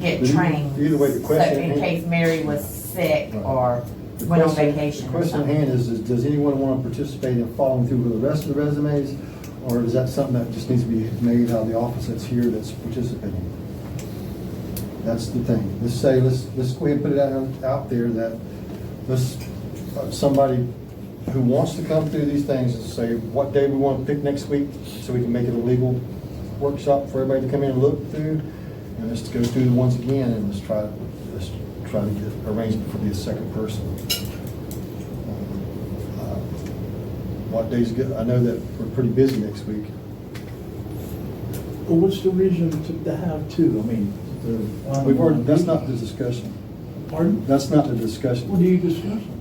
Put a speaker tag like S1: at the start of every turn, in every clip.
S1: get
S2: But either-
S1: trained.
S2: either way, the question-
S1: So in case Mary was sick
S2: Right.
S1: or
S2: The
S1: went on
S2: question-
S1: vacation
S2: The
S1: or
S2: question at hand
S1: something.
S2: is, is does anyone want to participate in following through with the rest of the resumes? Or is that something that just needs to be made out of the office that's here that's participating? That's the thing. Let's say, let's, let's go ahead and put it out, out there that, let's, uh, somebody who wants to come through these things and say what day we want to pick next week, so we can make it a legal workshop for everybody to come in and look through. And let's go through the ones again and let's try, let's try to get arrangement for the second person. Uh, What days good? I know that we're pretty busy next week.
S3: Well, what's the reason to, to have two? I mean, the. uh,
S2: We've already, that's not the discussion.
S3: Pardon?
S2: That's not the
S3: What are
S2: discussion.
S3: you discussing?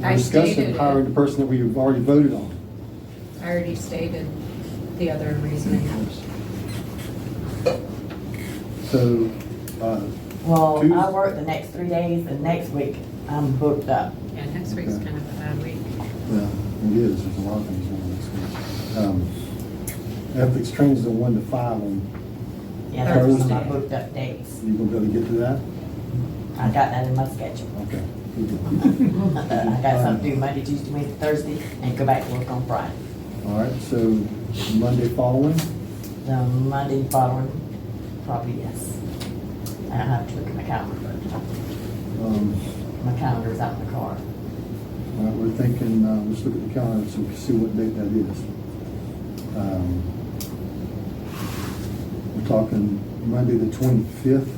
S2: We're
S4: I
S2: discussing
S4: stated it.
S2: hiring the person that we've already voted on.
S4: I already stated the other reasoning.
S2: So, uh,
S1: Well,
S2: Tues-
S1: I work the next three days and next week I'm booked up.
S4: Yeah, next week's kind of a bad week.
S2: yeah, it is, there's a lot of things going on next week. Um, Ethics training's the one to five, and
S1: Yeah, that's one of my
S2: Thursday.
S1: booked up days.
S2: you gonna be able to get to that?
S1: I got that in my schedule.
S2: Okay.
S1: I got something to do Monday, Tuesday, Wednesday, Thursday, and go back to work on Friday.
S2: All right, so Monday following,
S1: The Monday following, probably yes. I don't have to look at my calendar.
S2: um,
S1: My calendar's out in the car.
S2: All right, we're thinking, uh, let's look at the calendar so we can see what date that is. Um, We're talking Monday, the twenty-fifth.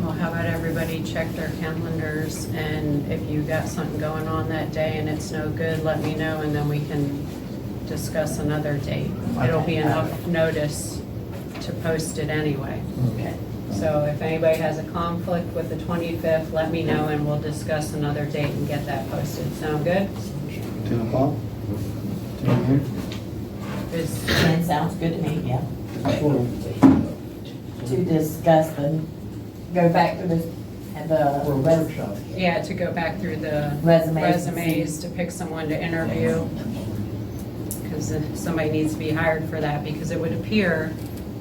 S4: Well, how about everybody check their calendars, and if you got something going on that day and it's no good, let me know, and then we can discuss another date. It'll be enough notice to post it anyway.
S2: Mm.
S1: Okay.
S4: So if anybody has a conflict with the 25th, let me know, and we'll discuss another date and get that posted. Sound good?
S2: Ten o'clock? Ten a.m.?
S4: Is-
S1: Ten sounds good to me, yeah.
S2: Well,
S1: To discuss the, go back to the, and the
S3: Or a
S1: res-
S3: workshop?
S4: Yeah, to go back through the
S1: Resumes.
S4: resumes, to pick someone to interview, because somebody needs to be hired for that, because it would appear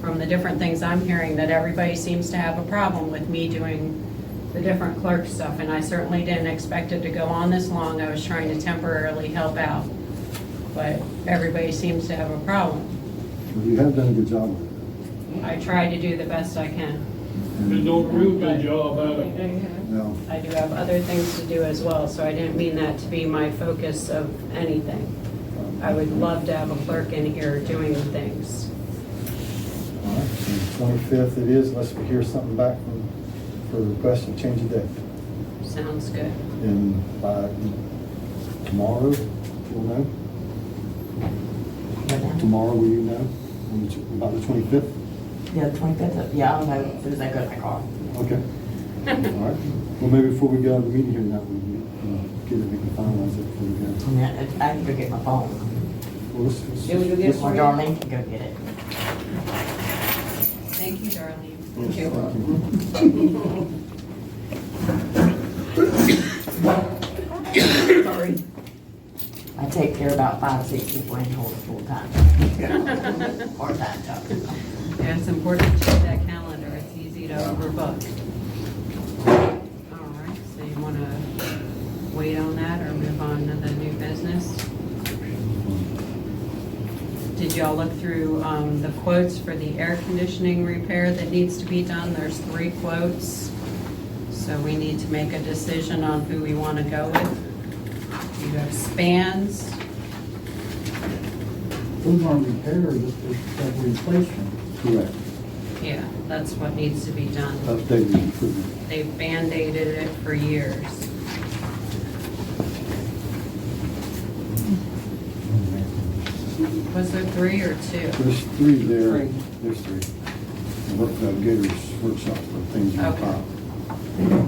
S4: from the different things I'm hearing that everybody seems to have a problem with me doing the different clerk stuff, and I certainly didn't expect it to go on this long. I was trying to temporarily help out, but everybody seems to have a problem.
S2: You have done a good job with
S4: I try to do the best I
S2: it.
S4: can.
S5: They don't real good job out of it.
S2: Well,
S4: I do have other things to do as well, so I didn't mean that to be my focus of anything.
S2: um,
S4: I would love to have a clerk in here doing things.
S2: all right, twenty-fifth it is, unless we hear something back from, for the request to change the date.
S4: Sounds good.
S2: And by tomorrow, we'll know. Tomorrow, will you know on the tw- about the 25th?
S1: Yeah, twenty-fifth, yeah, I'll know as soon as I go to my car.
S2: Okay. All right. Well, maybe before we go out of the meeting here, that we can uh, get it, we can finalize it before we
S1: I
S2: go.
S1: mean, I I can go get my phone.
S2: Well, let's- let's-
S4: Yeah, we go get
S2: let's-
S1: Or Darlene can go get it.
S4: Thank you, Darlene.
S2: Thank you.
S1: I take care of about five, six people and hold it full-time. Part-time job.
S4: Yeah, it's important to check that calendar. It's easy to overbook. All right, so you want to wait on that or move on to the new business? Did y'all look through um, the quotes for the air conditioning repair that needs to be done? There's three quotes. So we need to make a decision on who we want to go with. You have spans.
S3: Those aren't repairs, it's it's a replacement.
S2: Correct.
S4: Yeah, that's what needs to be done.
S2: Updated and improved.
S4: They've band-aided it for years. Was there three or two?
S2: There's three there.
S4: Three.
S2: There's three. The Work, uh, Gators workshop for things on
S4: Okay.
S2: top.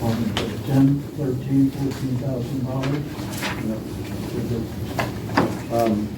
S3: Pardon, but Ten, thirteen, fourteen thousand dollars.
S2: Um,